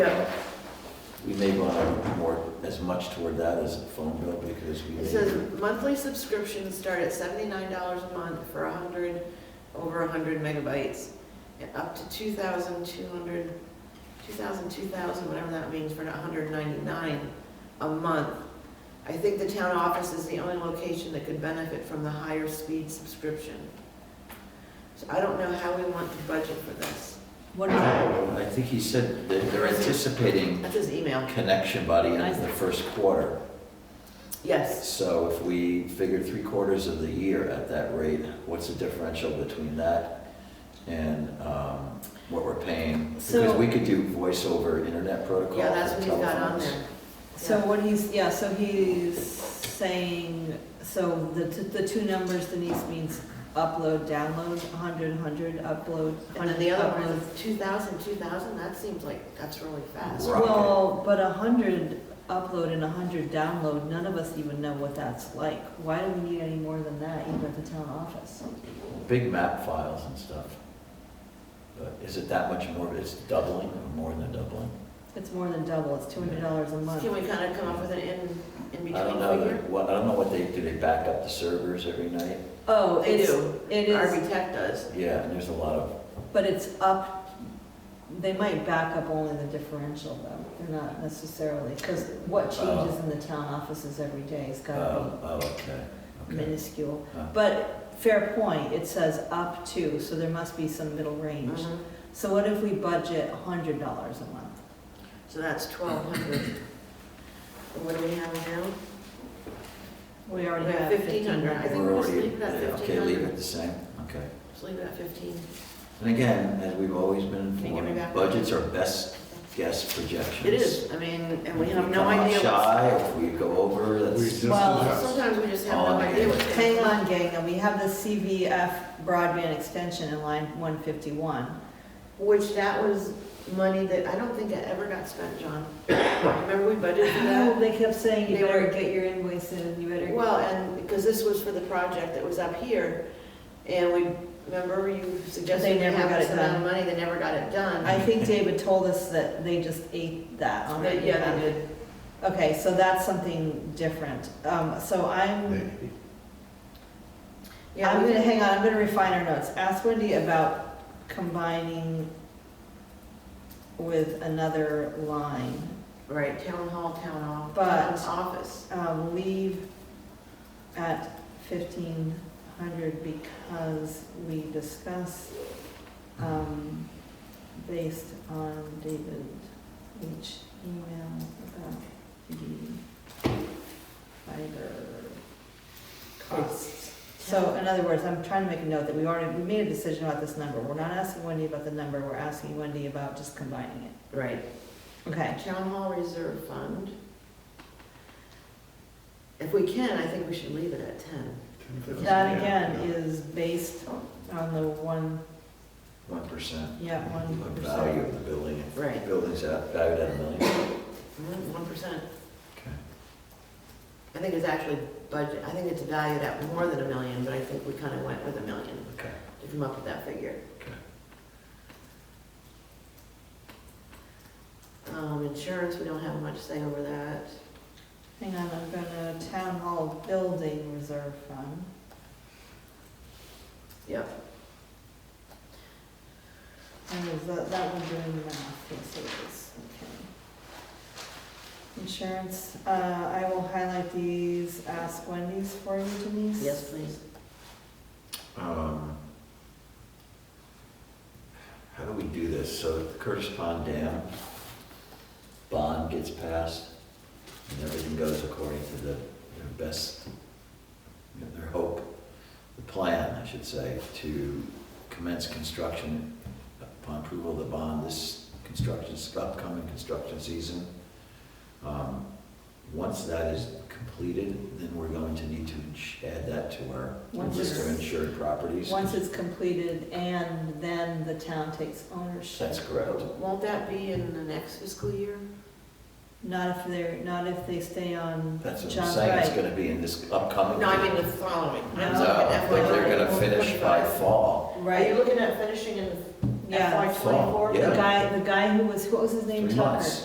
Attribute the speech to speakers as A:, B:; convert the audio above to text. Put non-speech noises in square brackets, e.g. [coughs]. A: We may want to more, as much toward that as the phone bill because we
B: It
A: may,
B: says monthly subscriptions start at seventy-nine dollars a month for a hundred, over a hundred megabytes, and up to two thousand two hundred, two thousand, two thousand, whatever that means, for a hundred ninety-nine a month. I think the town office is the only location that could benefit from the higher speed subscription. So I don't know how we want to budget for this.
C: What is it?
A: I think he said that they're anticipating
B: That's his email,
A: connection by the end of the first quarter.
B: yes.
A: So if we figure three quarters of the year at that rate, what's the differential between that and um, what we're paying? Because
C: So-
A: we could do voice over internet protocol
B: Yeah, that's
A: for
B: what he's got on
A: telephones.
B: there.
C: So what he's, yeah, so he's saying, so the, t- the two numbers Denise means upload, download, 100, 100, upload, 100,
B: And then the other one
C: upload.
B: is 2,000, 2,000, that seems like, that's really fast.
A: Rocket.
C: Well, but 100 upload and 100 download, none of us even know what that's like. Why do we need any more than that even at the town office?
A: Big map files and stuff. But is it that much more, it's doubling or more than doubling?
C: It's more than double, it's $200 a month.
B: Can we kind of come up with an in, in
A: I don't
B: between
A: know,
B: figure?
A: that- what, I don't know what they, do they back up the servers every night?
C: Oh,
B: They
C: it's,
B: do.
C: it is
B: RB Tech does.
A: Yeah, and there's a lot of,
C: But it's up, they might back up only the differential though, they're not necessarily, because what changes in the town offices every day has
A: oh,
C: gotta
A: oh, okay,
C: be
A: okay.
C: minuscule.
A: Huh.
C: But fair point, it says up to, so there must be some middle range.
B: Mhm.
C: So what if we budget hundred dollars a month?
B: So that's 1,200. And What do we have now?
C: We
B: We
C: already
B: have
C: have
B: 1500.
C: $1,500.
B: I think
A: We're
B: we'll just
A: already,
B: leave it at
A: okay, leave
B: 1,500.
A: it the same, okay.
B: Just leave it at 15.
A: And again, as we've always been
B: Can you give me
A: informed,
B: back?
A: budgets are best guess projections.
B: It is, I mean, and we
A: If
B: have no
A: come out
B: idea. what's-
A: Shy, if we go over, that's,
D: We
C: Well,
D: just-
B: Sometimes we just have no
A: Oh, okay.
B: idea what's.
C: Hang on, gang, and we have the CVF broadband extension in line one fifty-one.
B: Which that was money that I don't think it ever got spent,
A: [coughs]
B: John. Remember we budgeted for that?
C: They kept saying, you
B: They
C: better
B: were-
C: get your invoice in, you better.
B: Well, and because this was for the project that was up here, and we, remember you
C: They
B: suggested we
C: never
B: have
C: got
B: this
C: it
B: amount of
C: done.
B: money, they never got it done.
C: I think David told us that they just ate that on
B: But yeah, they did.
C: Okay, so that's something different. Um, so I'm,
B: Yeah,
C: I'm
B: we-
C: gonna, hang on, I'm gonna refine our notes. Ask Wendy about combining with another line.
B: Right, town hall, town off,
C: But-
B: town office.
C: Um, leave at fifteen hundred because we discuss, um, based on David H. email about the fiber costs. So in other words, I'm trying to make a note that we already, we made a decision about this number. We're not asking Wendy about the number, we're asking Wendy about just combining it.
B: Right.
C: Okay,
B: Town hall reserve fund. If we can, I think we should leave it at ten.
C: that again is based on the one
A: one percent.
C: Yeah, one
A: Value
C: percent.
A: of the building, if the
B: Right.
A: building's at- valued at a million.
B: One percent.
A: Okay.
B: I think it's actually budget, I think it's valued at more than a million, but I think we kind of went with a million
A: Okay,
B: to come up with that figure.
A: okay.
B: Um, insurance, we don't have much say over that.
C: Hang on, I'm gonna town hall building reserve fund.
B: Yep.
C: And is that, that one doing the math, yes it is, okay. Insurance, uh, I will highlight these, ask Wendy's for you Denise.
B: Yes, please.
A: Um, How do we do this? So the Curtis Pond Dam bond gets passed, and everything goes according to the, their best, you know, their hope, the plan, I should say, to commence construction upon approval of the bond this construction, upcoming construction season. Um, Once that is completed, then we're going to need to ins- add that to our
C: Once
A: list of
C: it's-
A: insured properties.
C: Once it's completed and then the town takes ownership.
A: That's correct.
B: Won't that be in the next fiscal year?
C: Not if they're, not if they stay on
A: That's what I'm
C: John
A: saying, it's
C: Wright.
A: gonna be in this upcoming.
B: No, I mean the following.
A: No,
B: I'm looking at
A: like they're
B: FY
A: gonna finish by
B: 25.
A: fall.
B: Are you
C: Right,
B: looking at finishing in,
C: yeah.
A: Fall,
C: The
A: yeah.
C: guy, the guy who was, what was his name?
A: Three
C: Tucker.
A: months.